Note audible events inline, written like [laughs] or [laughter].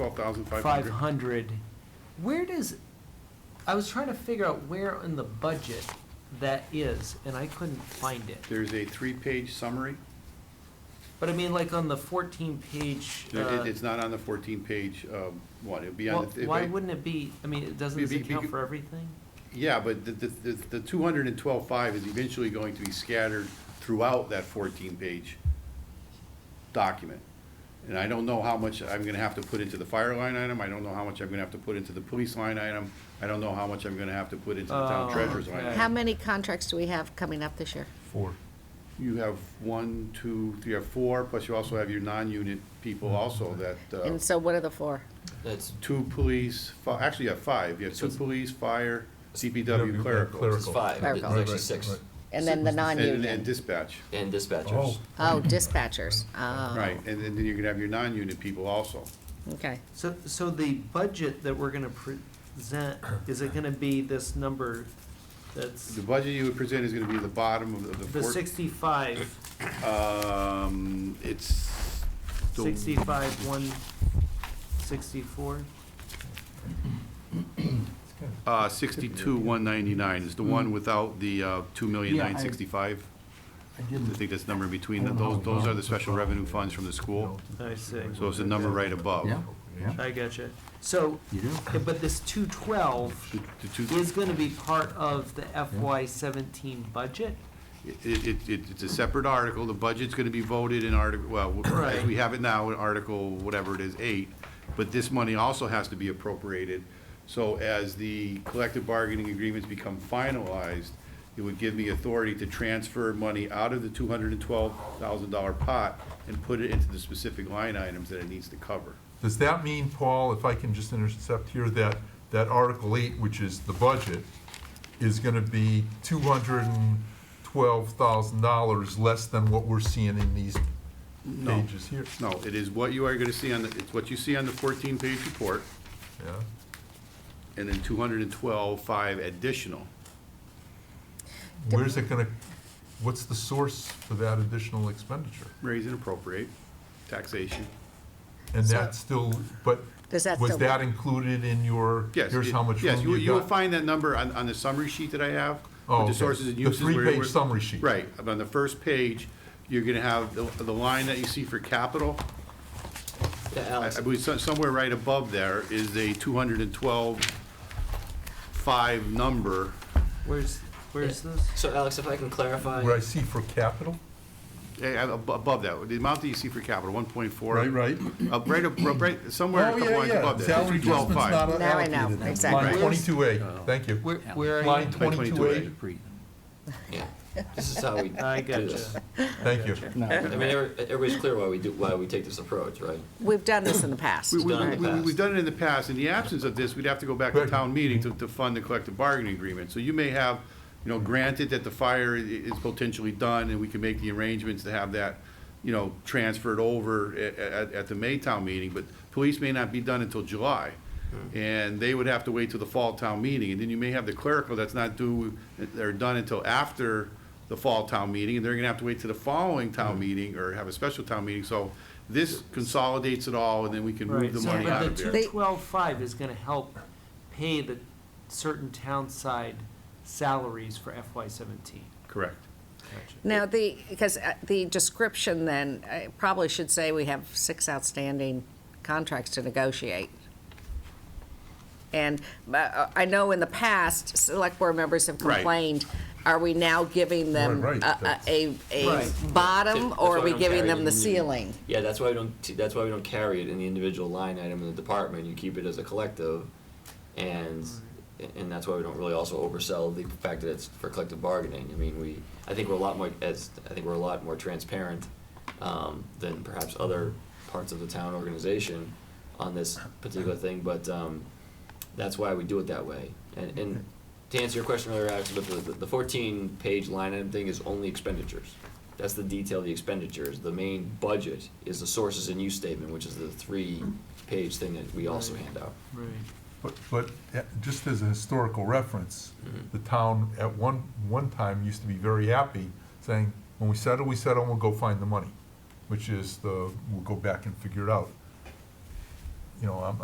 Twelve thousand five five hundred. hundred. Where does, I was trying to figure out where in the budget that is, and I couldn't find it. There's a three-page summary. But I mean, like on the fourteen page, It- uh, it- It's not on the fourteen-page um, one. It'd be why on the. if why I- wouldn't it be, I mean, it doesn't Be- this be- account be- for everything? Yeah, but the, the, the two hundred and twelve-five is eventually going to be scattered throughout that fourteen-page document. And I don't know how much I'm gonna have to put into the fire line item, I don't know how much I'm gonna have to put into the police line item, I don't know how much I'm gonna have to put into the town Oh, treasurer's line. okay. item. How many contracts do we have coming up this year? Four. You have one, two, three, or four, plus you also have your non-unit people also that, uh, And so what are the four? That's, two police, fi- actually you have five, you have two it's- police, fire, CPW clerical, it's five, it's Clerical. actually six, And then the and, and non-union? dispatch. and dispatchers. Oh, Oh, dispatchers. Oh. Right, and then then you're gonna have your non-unit people also. Okay. So, so the budget that we're gonna present, is it gonna be this number that's, The budget you would present is gonna be the bottom of the- of the the four. sixty-five, Um, it's. the- sixty-five, one, sixty-four? Uh, sixty-two, one ninety-nine is the one without the, uh, two million Yeah, I- nine sixty-five. I I didn't. think that's the number in between, those, those are the special revenue funds from the school, I see. so it's the number right above. Yeah, yeah. I gotcha. So, You do. yeah, but this two twelve The- the two- is gonna be part of the FY seventeen budget? It, it, it- it's a separate article, the budget's gonna be voted in article, well, as we Right. have it now, in article, whatever it is, eight, but this money also has to be appropriated. So as the collective bargaining agreements become finalized, it would give me authority to transfer money out of the two hundred and twelve thousand dollar pot and put it into the specific line items that it needs to cover. Does that mean, Paul, if I can just intercept here, that, that Article 8, which is the budget, is going to be $212,000 less than what we're seeing in these pages here? No, it is what you are gonna see on, the it's what you see on the fourteen-page report, Yeah, and then two hundred and twelve, five additional. where's it going to, what's the source for that additional expenditure? raise and appropriate, taxation. And So- that's still, but Does that was still- that included in your, Yes. here's how much Yes, room you will got? find that number on, on the summary sheet that I have. with Oh, okay. The sources and The uses. where- three-page where- summary sheet. Right, on the first page, you're gonna have the, the line that you see for capital. Yeah, I Alex, I believe some- somewhere right above there is a two hundred and twelve five number. Where's, where's this? so Alex, if I can clarify, Where I see for capital? eh, ab- above that, the amount that you see for capital, one point four. Right, right. Up, right, up- right, somewhere a Oh, couple yeah, lines yeah. above that. Salary adjustment's $212,500. not Now I know, allocated in that. exactly. Line Right. twenty-two A, thank you. Where, where are you? Line twenty-two A, 22A. [laughs] yeah, this is how we do I this. gotcha. thank you. I mean, every- everybody's clear why we do, why we take this approach, right? We've done this in the past. We- we- done in the we- past. We've done it in the past. In the absence of this, we'd have to go back to Right. town meeting to, to fund the collective bargaining agreement. So you may have, you know, granted that the fire i- is potentially done and we can make the arrangements to have that, you know, transferred over at, at, at the Maytown meeting, but police may not be done until July. And they would have to wait till the fall town meeting. And then you may have the clerical that's not due, they're done until after the fall town meeting, and they're gonna have to wait to the following town meeting or have a special town meeting. So this consolidates it all and then we can move Right, the so, money out but of the there. two twelve five is gonna help pay the certain town side salaries for FY seventeen. Correct. Now, the, because uh, the description then, I probably should say we have six outstanding contracts to negotiate. And uh, I know in the past, select board members have Right. complained, are we now giving them Right, right, a- a, a, a Right. bottom, That's or are why we don't giving carry it them in the ceiling? Yeah, that's why we don't, t- that's why we don't carry it in the individual line item in the department, you keep it as a collective, and, and that's why we don't really also oversell the fact that it's for collective bargaining, I mean, we, I think we're a lot more, as, I think we're a lot more transparent, um, than perhaps other parts of the town organization on this particular thing, but, um, that's why we do it that way, and, and to answer your question earlier, Alex, but the, the fourteen page line item thing is only expenditures. That's the detail, of the expenditures, the main budget is the sources and use statement, which is the three page thing that we also hand out. Right. But, but uh, just as a historical reference, the town at one, one time used to be very happy saying, when we settle, we settle, and we'll go find the money, which is the, we'll go back and figure it out. you know, I'm,